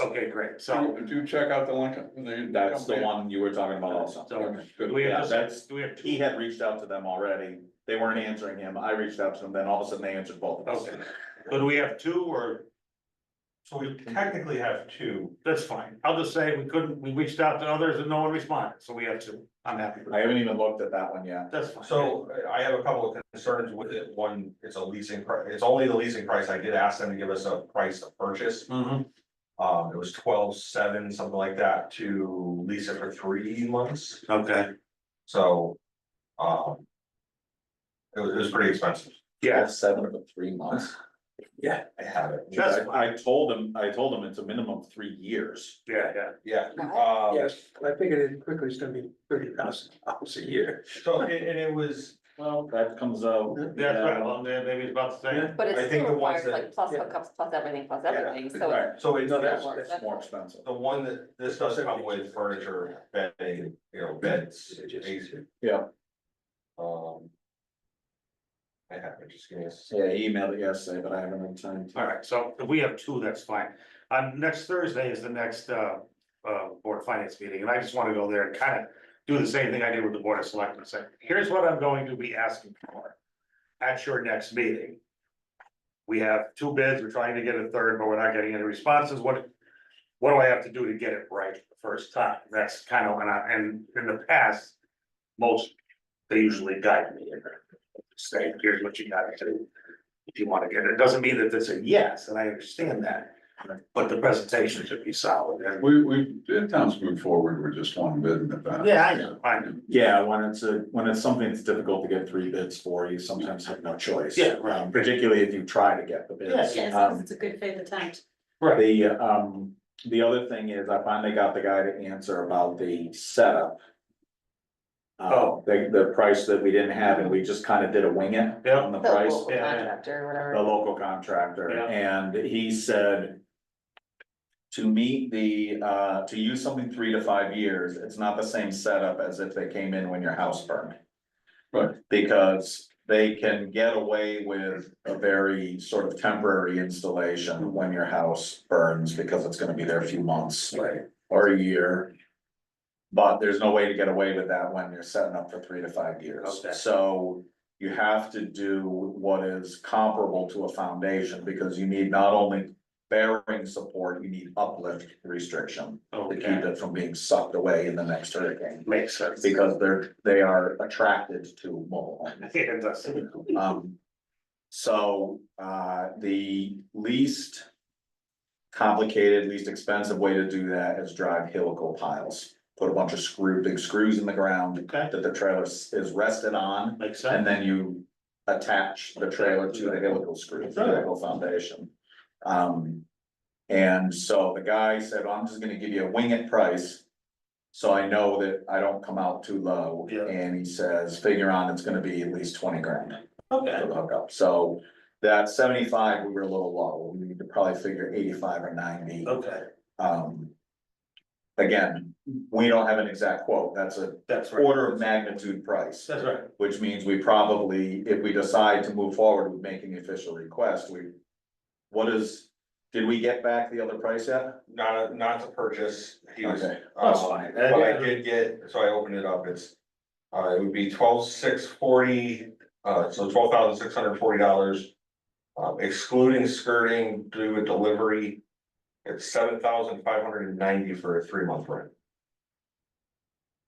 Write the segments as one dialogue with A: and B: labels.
A: Okay, great, so,
B: Did you check out the Lincoln? the-
C: That's the one you were talking about also.
A: so, do
B: Good.
A: we
C: Yeah,
A: have,
C: that's-
A: just- do we have
C: He
A: two?
C: had reached out to them already. They weren't answering him. I reached out to them, then all of a sudden they answered both of us.
A: Okay, so do we have two, or,
D: So we technically have two.
A: that's fine, I'll just say we couldn't, we reached out to others and no one responded, so we have two, I'm happy with
C: I
A: that,
C: haven't even looked at that one yet.
A: that's fine.
D: So I have a couple of concerns with it. One, it's a leasing, pri- it's only the leasing price. I did ask them to give us a price of purchase.
A: Mhm.
D: Um, it was twelve seven, something like that, to lease it for three months,
A: okay,
D: so. Um. It was, it was pretty expensive.
A: yeah,
C: Seven of the three months.
D: Yeah. I have it.
A: That's
C: I- I told him, I told him it's a minimum of three years.
A: yeah, yeah.
D: Yeah, um.
E: Yes, I figured it quickly is gonna be thirty thousand dollars a year.
D: So and and it was,
C: Well, that comes out.
A: Oh. Yeah, That's right, well, then maybe it's about the same.
F: But
D: I
F: it
D: think
F: still
D: the ones
F: requires
D: that-
F: like plus
E: yeah.
F: hookups, plus everything, plus
C: Yeah.
F: everything, so it's
C: Right,
D: so it's
E: No,
F: that's-
D: the
E: that's, that's,
C: it's more expensive.
D: one that, this does come with furniture, bedding, you know, beds, amazing.
C: Yeah.
D: Um. I have it, just give me a second.
C: Yeah, he emailed it yesterday, but I haven't had time to.
A: All right, so if we have two, that's fine. Um, next Thursday is the next, uh, uh, Board of Finance meeting, and I just wanna go there and kind of do the same thing I did with the Board of Selectmen, say, here's what I'm going to be asking for at your next meeting. We have two bids, we're trying to get a third, but we're not getting any responses, what, what do I have to do to get it right the first time? That's kind of, and I, and in the past, most, they usually guide me and say, here's what you gotta do if you wanna get it, it doesn't mean that it's a yes, and I understand that. But the presentation should be solid, and,
B: We, we, the towns move forward, we're just one bid in advance.
A: yeah, I know, I know,
C: Yeah, when it's a, when it's something that's difficult to get three bids for, you sometimes have no choice.
A: Yeah, right.
C: Um, Particularly if you try to get the bids.
G: Yes,
C: Um,
G: because it's a good faith attempt.
A: right,
C: The, um, the other thing is I finally got the guy to answer about the setup.
A: Oh.
C: Oh, the, the price that we didn't have and we just kind of did a wing it
A: Yeah.
C: on the
F: the
C: price.
F: local
A: yeah, yeah.
F: contractor or whatever.
C: The local contractor
A: Yeah.
C: and he said. To meet the, uh, to use something three to five years, it's not the same setup as if they came in when your house burned.
B: Right.
C: Because they can get away with a very sort of temporary installation when your house burns because it's gonna be there a few months.
A: Right.
C: Or a year. But there's no way to get away with that when you're setting up for three to five years.
A: Okay.
C: So you have to do what is comparable to a foundation because you need not only bearing support, you need uplift restriction to keep
A: okay,
C: it from being sucked away in the next hurricane.
A: Oh, makes sense.
C: Because they're, they are attracted to mobile homes.
A: It does.
C: Um, so, uh, the least complicated, least expensive way to do that is drive helical piles. Put a bunch of screw, big screws in the ground
A: Okay,
C: that the trailer s- is rested on,
A: makes sense.
C: and then you attach the trailer to the helical screw, the helical foundation. Um, and so the guy said, I'm just gonna give you a wing it price. So I know that I don't come out too low,
A: Yeah.
C: and he says, figure on, it's gonna be at least twenty grand
A: Okay,
C: for the hookup, so that seventy-five, we were a little low, we need to probably figure eighty-five or ninety,
A: okay,
C: um. Again, we don't have an exact quote, that's a
A: that's right,
C: order of magnitude price,
A: that's right,
C: which means we probably, if we decide to move forward with making the official request, we. What is, did we get back the other price yet?
D: Not, not to purchase, he was.
C: Okay,
D: um,
C: fine.
D: But I did get, so I opened it up, it's, uh, it would be twelve six forty, uh, so twelve thousand six hundred forty dollars. Um, excluding skirting due to delivery, it's seven thousand five hundred and ninety for a three month rent.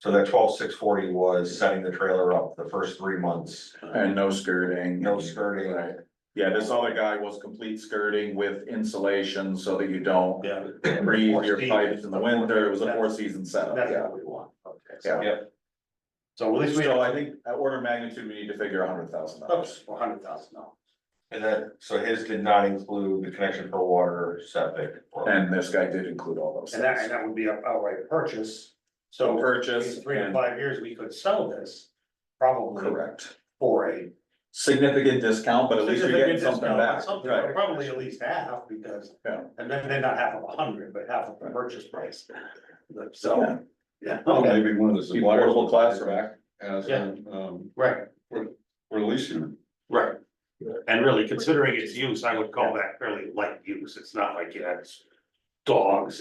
D: So that twelve six forty was setting the trailer up the first three months,
C: And no skirting.
D: no skirting.
C: Right. Yeah, this other guy was complete skirting with insulation so that you don't
A: yeah,
C: breathe your pipes in the winter, it was a four season setup,
A: that's
C: yeah.
A: what we want, okay. so-
C: Yeah,
A: So at least we have
C: so I think at order of magnitude, we need to figure a hundred thousand dollars.
A: a hundred thousand dollars.
D: And that, so his did not include the connection for water, septic. or-
C: And this guy did include all those
A: And that, and
C: things.
A: that would be an outright purchase,
C: So
A: so
C: purchase
A: in three to
C: and,
A: five years, we could sell this probably
C: correct,
A: for a
C: significant discount, but at least you're getting
A: Significant
C: something
A: discount on
C: back,
A: something,
C: right?
A: Probably at least half, because,
C: Yeah.
A: and then they're not half of a hundred, but half of the purchase price.
C: Yeah.
A: So, yeah,
B: Well,
A: okay,
B: Maybe one of the
C: Be
B: suppliers.
C: portable
B: will
C: classroom.
B: back As,
A: Yeah.
B: an, um,
A: right,
B: we're leasing it.
A: right. And really, considering its use, I would call that fairly light use, it's not like you had dogs